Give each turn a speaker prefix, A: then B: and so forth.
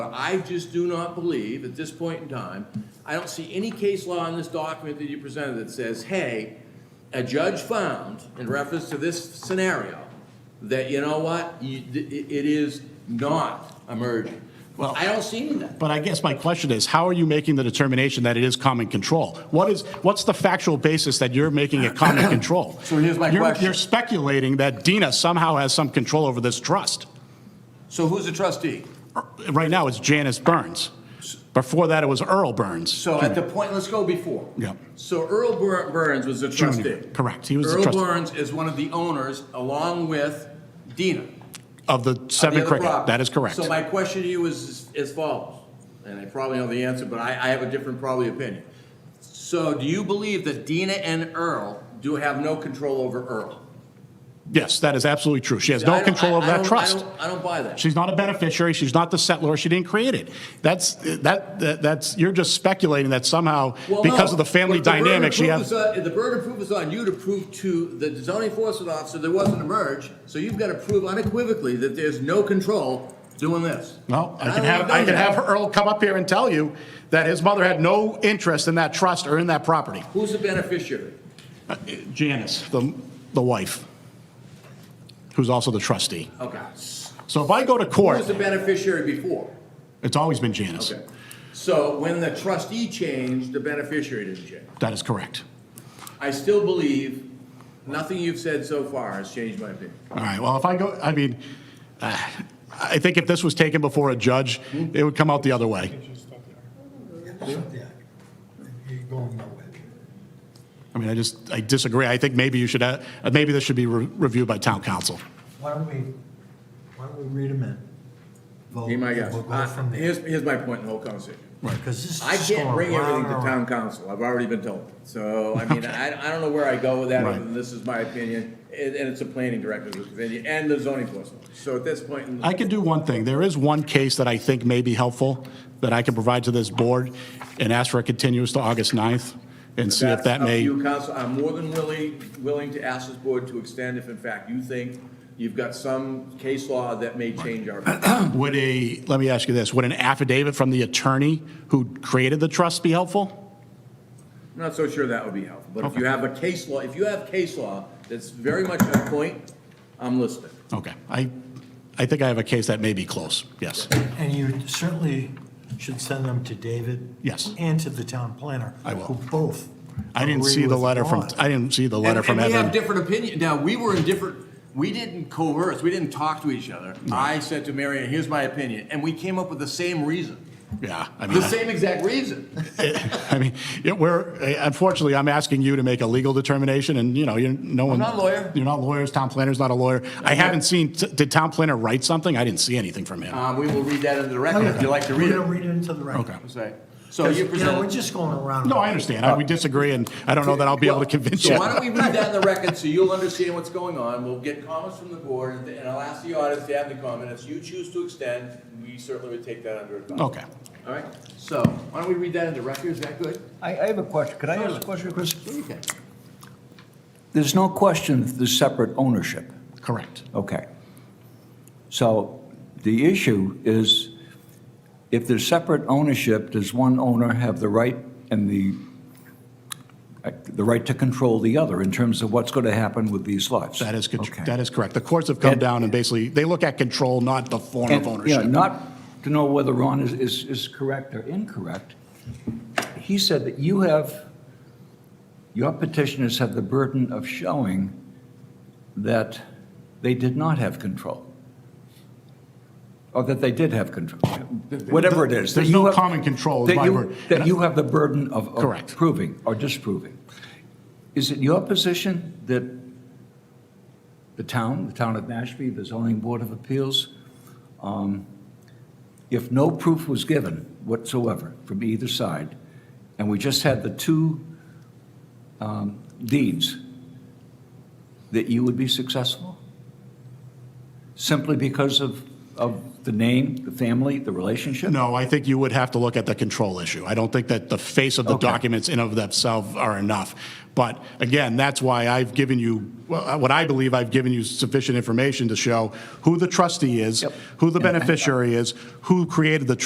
A: But I just do not believe, at this point in time, I don't see any case law in this document that you presented that says, hey, a judge found, in reference to this scenario, that, you know what, you, it, it is not emerging.
B: Well-
A: I don't see any of that.
B: But I guess my question is, how are you making the determination that it is common control? What is, what's the factual basis that you're making it common control?
A: So here's my
B: You're-
A: question.
B: You're speculating that Dina somehow has some control over this trust.
A: So who's the trustee?
B: Right now, it's Janice Burns. Before that, it was Earl Burns.
A: So at the point, let's go before.
B: Yeah.
A: So Earl Bur- Burns was a trustee.
B: correct. He was the trustee.
A: Earl Burns is one of the owners, along with Dina.
B: Of the
A: the
B: seven
A: other
B: cricket,
A: property.
B: that is correct.
A: So my question to you is as follows, and I probably know the answer, but I, I have a different probably opinion. So do you believe that Dina and Earl do have no control over Earl?
B: Yes, that is absolutely true. She has
A: I
B: no
A: don't-
B: control
A: I-
B: over
A: I
B: that
A: don't- I
B: trust.
A: don't- I don't buy that.
B: She's not a beneficiary, she's not the settlor, she didn't create it. That's, that, that- that's, you're just speculating that somehow,
A: Well, no,
B: because of the family
A: but burden of
B: dynamic, she
A: proof
B: has.
A: is on- The burden of proof is on you to prove to the zoning enforcement officer there wasn't a merge, so you've got to prove unequivocally that there's no control doing this.
B: No,
A: And
B: I can
A: don't
B: have,
A: wanna
B: I
A: do
B: can
A: that.
B: have Earl come up here and tell you that his mother had no interest in that trust or in that property.
A: Who's the beneficiary?
B: Janice, the, the wife, who's also the trustee.
A: Okay.
B: So if I go to
A: Who's
B: court,
A: the beneficiary before?
B: it's always been Janice.
A: Okay. So when the trustee changed, the beneficiary didn't change.
B: That is correct.
A: I still believe nothing you've said so far has changed my opinion.
B: All right, well, if I go, I mean, uh, I think if this was taken before a judge, it would come out the other way.
C: You're going nowhere.
B: I mean, I just, I disagree. I think maybe you should, uh, maybe this should be re- reviewed by town council.
C: Why don't we, why don't we read them in? Vote,
A: Be my
C: and
A: guest.
C: We'll go
A: Uh,
C: from there.
A: Here's, here's my point in the whole conversation.
C: Because this is
A: I
C: just
A: can't
C: going
A: bring everything to
C: round and
A: town
C: round.
A: council, I've already been told. So, I mean, I, I don't know where I go with that, other than this is my opinion, and, and it's a planning director's opinion, and the zoning enforcement. So at this point, in the-
B: I can do one thing. There is one case that I think may be helpful that I can provide to this board and ask for a continuance to August 9th and see
A: that's
B: if that
A: up to
B: may,
A: you, council, I'm more than willing, willing to ask this board to extend if in fact you think you've got some case law that may change our.
B: would a, let me ask you this, would an affidavit from the attorney who created the trust be helpful?
A: I'm not so sure that would be helpful, but if you have a case law, if you have case law that's very much on point, I'm listening.
B: Okay, I, I think I have a case that may be close, yes.
C: And you certainly should send them to David.
B: Yes.
C: And to the town planner.
B: I will.
C: Who both.
B: I didn't
C: agree
B: see the
C: with
B: letter from,
C: Ron.
B: I didn't see the letter
A: And-
B: from
A: And we have
B: Evan.
A: different opinion, now, we were in different, we didn't coerce, we didn't talk to each other. I said to Marion, here's my opinion, and we came up with the same reason,
B: Yeah, I mean,
A: the same exact reason.
B: I mean, yeah, we're, uh, unfortunately, I'm asking you to make a legal determination, and, you know, you're, no one.
A: not a lawyer.
B: You're not lawyers, town planner's not a lawyer. I haven't seen, did town planner write something? I didn't see anything from him.
A: Uh, we will read that into the record if you'd like to read
C: We're gonna
A: it.
C: read it into the record.
B: Okay.
A: Sorry. So you
C: You know, we're
A: presented.
C: just going around.
B: No, I understand, I- we disagree, and I don't know that I'll be able to convince you.
A: So why don't we read that in the record so you'll understand what's going on? We'll get comments from the board, and- and I'll ask the audience to have the comment. If you choose to extend, we certainly would take that under advisement.
B: Okay.
A: All right, so why don't we read that into record? Is that good?
D: I, I have a question. Could I ask a question, Chris?
A: Okay.
D: There's no question that there's separate ownership.
B: Correct.
D: Okay. So the issue is, if there's separate ownership, does one owner have the right and the, uh, the right to control the other in terms of what's going to happen with these lots?
B: That is, contr-
D: Okay.
B: that is correct. The courts have come
D: And-
B: down and basically, they look at control, not the form of
D: And, you know,
B: ownership.
D: Not to know whether Ron is, is, is correct or incorrect, he said that you have, your petitioners have the burden of showing that they did not have control. Or that they did have control, whatever it is. that
B: There's
D: you
B: no
D: have-
B: common control is
D: that
B: my
D: you-
B: word.
D: That you have the burden of. of
B: Correct.
D: Proving or disproving. Is it your position that the town, the town of Mashpee, the zoning board of appeals, um, if no proof was given whatsoever from either side, and we just had the two um, deeds, that you would be successful? Simply because of, of the name, the family, the relationship?
B: No, I think you would have to look at the control issue. I don't think that the face of the
D: Okay.
B: documents in of themselves are enough. But again, that's why I've given you, well, uh, what I believe I've given you sufficient information to show who the trustee is,
D: Yep.
B: who the
D: And- and-
B: beneficiary is, who created the